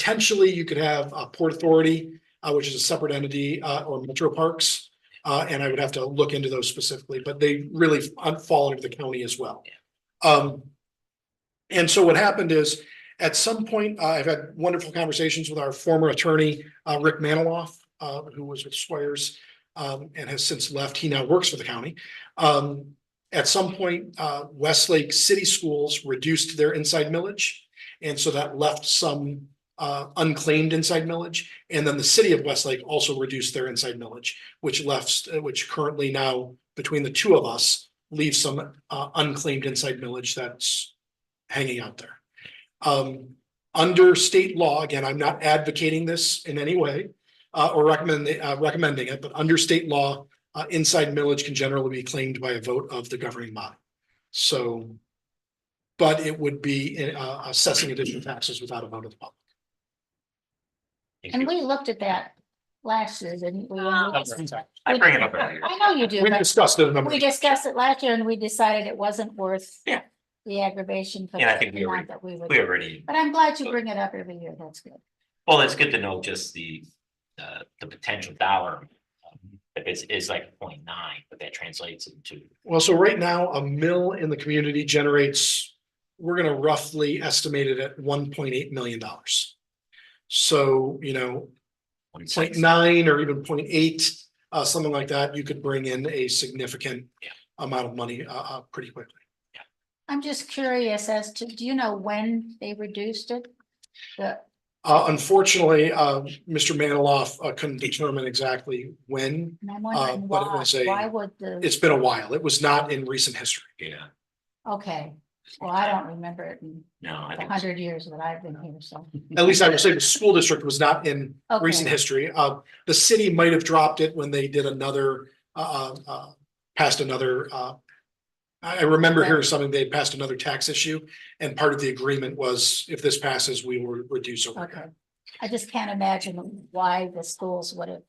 Potentially, you could have a Port Authority, uh, which is a separate entity, uh, or Metro Parks. Uh, and I would have to look into those specifically, but they really fall into the county as well. Um, and so what happened is, at some point, uh, I've had wonderful conversations with our former attorney, uh, Rick Maniloff, uh, who was with Swires, um, and has since left. He now works for the county. Um, at some point, uh, Westlake City Schools reduced their inside millage. And so that left some, uh, unclaimed inside millage. And then the city of Westlake also reduced their inside millage, which left, which currently now, between the two of us, leaves some, uh, unclaimed inside millage that's hanging out there. Um, under state law, again, I'm not advocating this in any way, uh, or recommend, uh, recommending it, but under state law, uh, inside millage can generally be claimed by a vote of the governing body. So, but it would be, uh, assessing additional taxes without a vote of the public. And we looked at that last year, didn't we? Uh, I I bring it up earlier. know you do, We but discussed it a number. we of- discussed it last year and we decided it wasn't worth Yeah. the aggravation. for And I the think we amount that we would. We already, But I'm glad you bring it up every year, that's good. well, it's good to know just the, uh, the potential dollar. um, If it's, is like point nine, but that translates into, Well, so right now, a mill in the community generates, we're gonna roughly estimate it at one point eight million dollars. So, you know, 0.9 1.6. or even 0.8, uh, something like that, you could bring in a significant Yeah. amount of money, uh, uh, pretty quickly. I'm just curious as to, do you know when they reduced it? The- Uh, unfortunately, uh, Mr. Maniloff uh, couldn't determine exactly when. and I'm wondering Uh, but it why, was a- why would the, It's been a while. It was not in recent history. yeah, okay, well, I don't remember it in no, I the think, hundred years that I've been here, so. At least I would say the school district was not in Okay. recent history. Uh, the city might have dropped it when they did another, uh, uh, uh, passed another, uh, I, I remember hearing something, they passed another tax issue, and part of the agreement was if this passes, we will reduce Okay, overhead. I just can't imagine why the schools would have,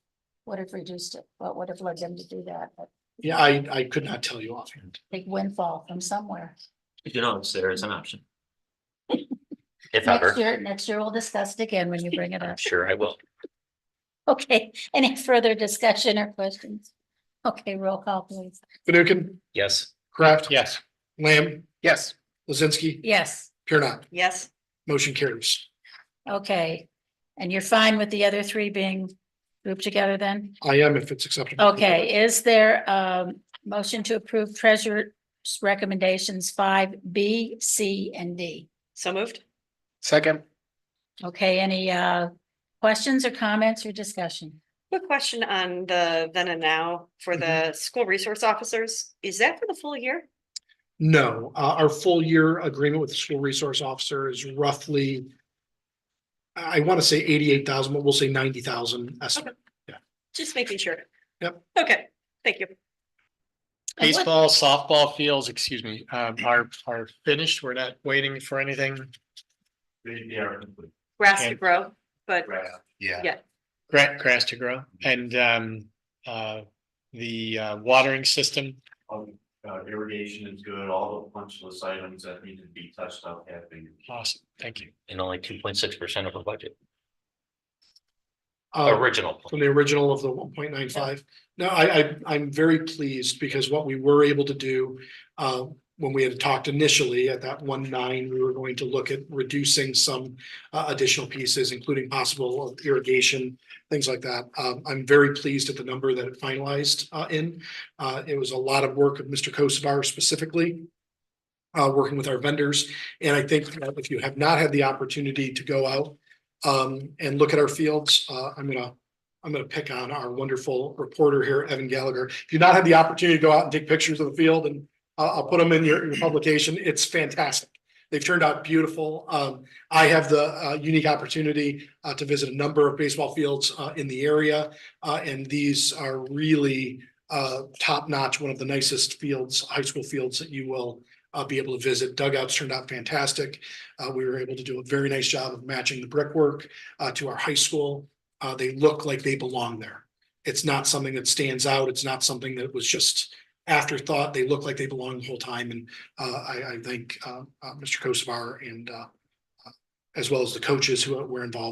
would have reduced it, what would have led them to do that, a Yeah, I, I could not tell you offhand. big windfall from somewhere. you know, so there is an option. If Next ever, year, next year we'll discuss it again when you bring it I'm up. sure I will. Okay, any further discussion or questions? Okay, roll call please. Fanukin, Yes, Kraft. Yes. Lamb, Yes. Lizinsky, Yes, Pure Not, Yes, motion carries. okay. And you're fine with the other three being grouped together then? I am if it's acceptable. Okay, is there a motion to approve treasurer's recommendations five B, C, and D? so moved. Second. Okay, any uh questions or comments or discussion? Quick question on the then and now for the school resource officers. Is that for the full year? No, uh, our full year agreement with the school resource officer is roughly. I want to say eighty-eight thousand, but we'll say ninety thousand estimate. Just making sure. Yep. Okay, thank you. And what- Baseball, softball fields, excuse me, um, are, are finished. We're not waiting for anything. Grass to And- grow, but Yeah. Yeah. Gra- grass to grow and, um, uh, the, uh, watering system. Um, uh, irrigation is good, all the punch list items that need to be touched up have been. Awesome. Thank you. and only two point six percent of our budget, Uh, original. from the original of the one point nine five. No, I, I, I'm very pleased because what we were able to do. Uh, when we had talked initially at that one nine, we were going to look at reducing some uh, additional pieces, including possible irrigation, things like that. Um, I'm very pleased at the number that it finalized uh, in. Uh, It was a lot of work of Mr. Kosovar specifically, uh, working with our vendors. And I think that if you have not had the opportunity to go out um, and look at our fields, uh, I'm gonna, I'm gonna pick on our wonderful reporter here, Evan Gallagher. If you've not had the opportunity to go out and take pictures of the field and I'll, I'll put them in your, your publication, it's fantastic. They've turned out beautiful. Um, I have the uh, unique opportunity uh, to visit a number of baseball fields uh, in the area. Uh, and these are really uh, top notch, one of the nicest fields, high school fields that you will uh, be able to visit. Dugouts turned out fantastic. Uh, we were able to do a very nice job of matching the brickwork uh, to our high school. Uh, they look like they belong there. It's not something that stands out. It's not something that was just afterthought. They look like they belong the whole time. And uh, I, I thank uh, uh, Mr. Kosovar and uh, uh, as well as the coaches who were involved.